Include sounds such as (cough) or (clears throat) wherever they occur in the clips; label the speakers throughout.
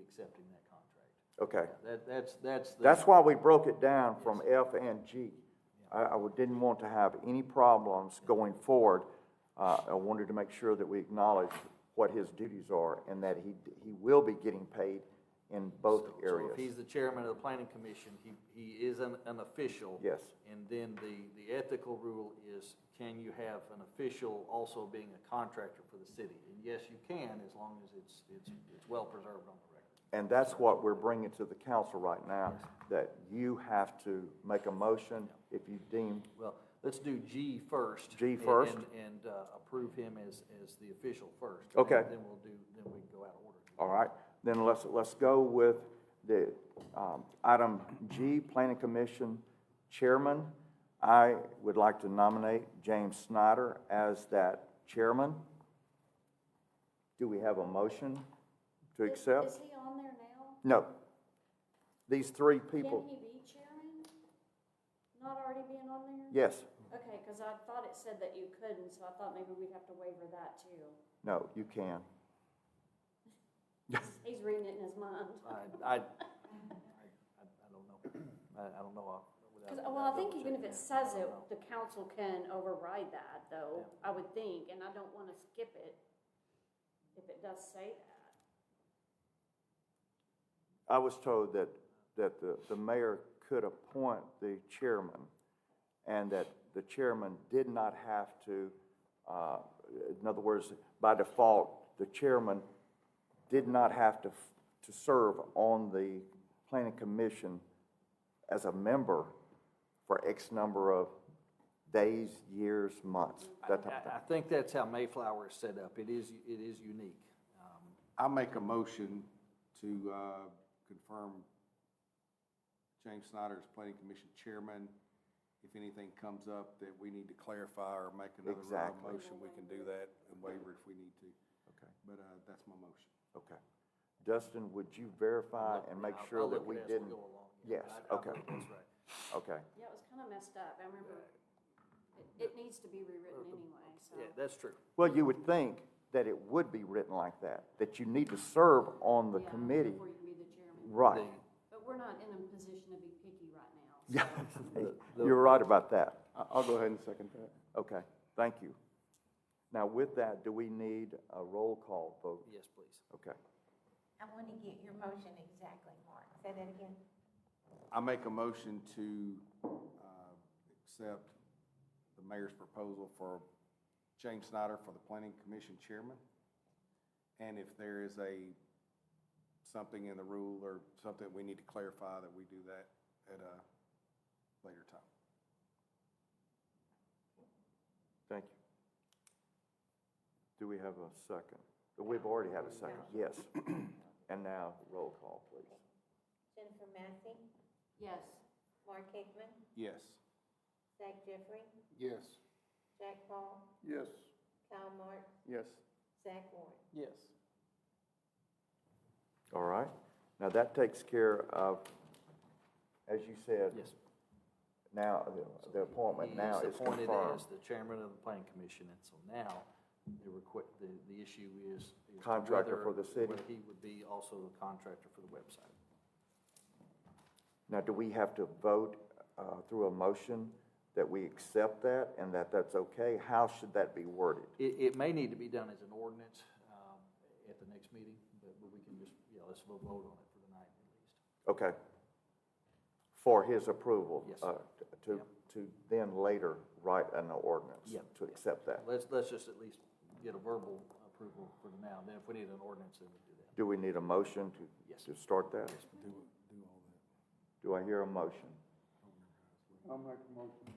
Speaker 1: accepting that contract.
Speaker 2: Okay.
Speaker 1: That, that's, that's the.
Speaker 2: That's why we broke it down from F and G. I, I would- didn't want to have any problems going forward. Uh, I wanted to make sure that we acknowledge what his duties are and that he, he will be getting paid in both
Speaker 1: So- So if
Speaker 2: areas.
Speaker 1: he's the chairman of the planning commission, he, he is an, an official.
Speaker 2: Yes.
Speaker 1: And then the, the ethical rule is, can you have an official also being a contractor for the city? And yes, you can, as long as it's, it's, it's well preserved on the record.
Speaker 2: And that's what we're bringing to the council right now, that you have to make a motion if you deem,
Speaker 1: Well, let's do G first.
Speaker 2: G
Speaker 1: and-
Speaker 2: first.
Speaker 1: and- And uh, approve him as, as the official first. and
Speaker 2: Okay.
Speaker 1: Then we'll do, then we can go out of order.
Speaker 2: all right? Then let's, let's go with the, um, item G, Planning Commission Chairman. I would like to nominate James Snyder as that chairman. Do we have a motion to
Speaker 3: Is-
Speaker 2: accept?
Speaker 3: Is he on there now?
Speaker 2: No. These three
Speaker 3: Can
Speaker 2: people,
Speaker 3: he be chairman? Not already being on there?
Speaker 2: yes,
Speaker 3: Okay, because I thought it said that you couldn't, so I thought maybe we'd have to waiver that
Speaker 2: (laughs)
Speaker 3: too.
Speaker 2: no, you can.
Speaker 3: He's reading it in his mind.
Speaker 1: I, I, I I don't know. I, I don't know. I'll- without-
Speaker 3: (laughs) 'Cause,
Speaker 1: without
Speaker 3: well, I think
Speaker 1: double
Speaker 3: even if
Speaker 1: checking
Speaker 3: it
Speaker 1: that.
Speaker 3: says
Speaker 1: I
Speaker 3: it,
Speaker 1: don't know.
Speaker 3: the council can override that though, I would think, and I don't want to skip it if it does say that.
Speaker 2: I was told that, that the, the mayor could appoint the chairman, and that the chairman did not have to, uh, in other words, by default, the chairman did not have to, f- to serve on the planning commission as a member for X number of days, years, months, that type of thing.
Speaker 1: I, I think that's how Mayflower is set up. It is, it is unique. Um,
Speaker 4: I make a motion to uh, confirm James Snyder as planning commission chairman. If anything comes up that we need to clarify or make another round
Speaker 2: Exactly.
Speaker 4: of motion, we can do that and waiver if we need to.
Speaker 2: Okay.
Speaker 4: But uh, that's my motion.
Speaker 2: Okay. Dustin, would you verify and make
Speaker 1: I'll- I'll
Speaker 2: sure
Speaker 1: look
Speaker 2: that
Speaker 1: at
Speaker 2: we
Speaker 1: it as
Speaker 2: didn't?
Speaker 1: go along.
Speaker 2: Yes,
Speaker 1: I- I
Speaker 2: okay.
Speaker 1: think That's right.
Speaker 2: Okay.
Speaker 3: Yeah, it was kind of messed up, I remember, it, it needs to be rewritten anyway, so.
Speaker 1: Yeah, that's true.
Speaker 2: Well, you would think that it would be written like that, that you need to serve on the
Speaker 3: Yeah,
Speaker 2: committee.
Speaker 3: Before you be the chairman.
Speaker 2: Right.
Speaker 1: The-
Speaker 3: But we're not in a position to be picky right now.
Speaker 2: (laughs) Yeah,
Speaker 3: so-
Speaker 2: you're right about that.
Speaker 4: I'll go ahead and second that.
Speaker 2: Okay, thank you. Now, with that, do we need a roll call vote?
Speaker 1: Yes, please.
Speaker 2: Okay.
Speaker 5: I want to get your motion exactly, Mark. Say that again.
Speaker 4: I make a motion to uh, accept the mayor's proposal for James Snyder for the planning commission chairman. And if there is a, something in the rule or something we need to clarify, that we do that at a later time.
Speaker 2: Thank you. Do we have a second? We've already had a second, yes. (clears throat) And now, roll call, please.
Speaker 5: Jennifer Massey,
Speaker 3: Yes,
Speaker 5: Mark Hickman,
Speaker 4: Yes.
Speaker 5: Zach Jeffrey,
Speaker 4: Yes.
Speaker 5: Jack Paul,
Speaker 4: Yes.
Speaker 5: Kyle Mark,
Speaker 4: Yes.
Speaker 5: Zach Warren.
Speaker 4: Yes.
Speaker 2: All right, now that takes care of, as you said,
Speaker 1: Yes.
Speaker 2: now, the- the appointment now
Speaker 1: He
Speaker 2: is
Speaker 1: appointed
Speaker 2: confirmed.
Speaker 1: as the chairman of the planning commission, and so now, the requ the, the issue is. is
Speaker 2: Contractor for
Speaker 1: whether-
Speaker 2: the city.
Speaker 1: whether He would be also the contractor for the website.
Speaker 2: Now, do we have to vote uh, through a motion that we accept that and that that's okay? How should that be worded?
Speaker 1: It, it may need to be done as an ordinance, um, at the next meeting, but, but we can just, yeah, let's vote on it for tonight at least.
Speaker 2: Okay. For his approval?
Speaker 1: Yes.
Speaker 2: uh, To, to then later write an ordinance?
Speaker 1: Yeah.
Speaker 2: To accept that?
Speaker 1: Let's, let's just at least get a verbal approval for now, then if we need an ordinance, then we do that.
Speaker 2: Do we need a motion
Speaker 1: Yes.
Speaker 2: to, to start that? Do I hear a motion?
Speaker 6: I'll make a motion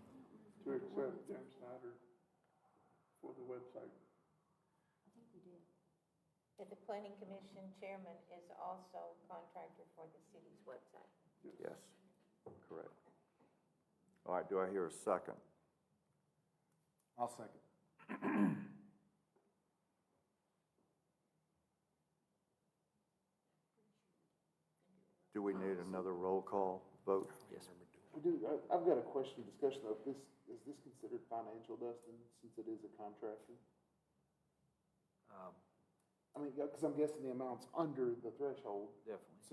Speaker 6: to accept Jim Snyder for the website.
Speaker 5: That the planning commission chairman is also contractor for the city's website.
Speaker 2: Yes, correct. All right, do I hear a second?
Speaker 4: I'll second.
Speaker 2: Do we need another roll call vote?
Speaker 1: Yes.
Speaker 7: I do, I, I've got a question, discussion of this, is this considered financial, Dustin, since it is a contractor?
Speaker 1: Um,
Speaker 7: I I mean, because I'm guessing the amount's under the threshold.
Speaker 1: definitely.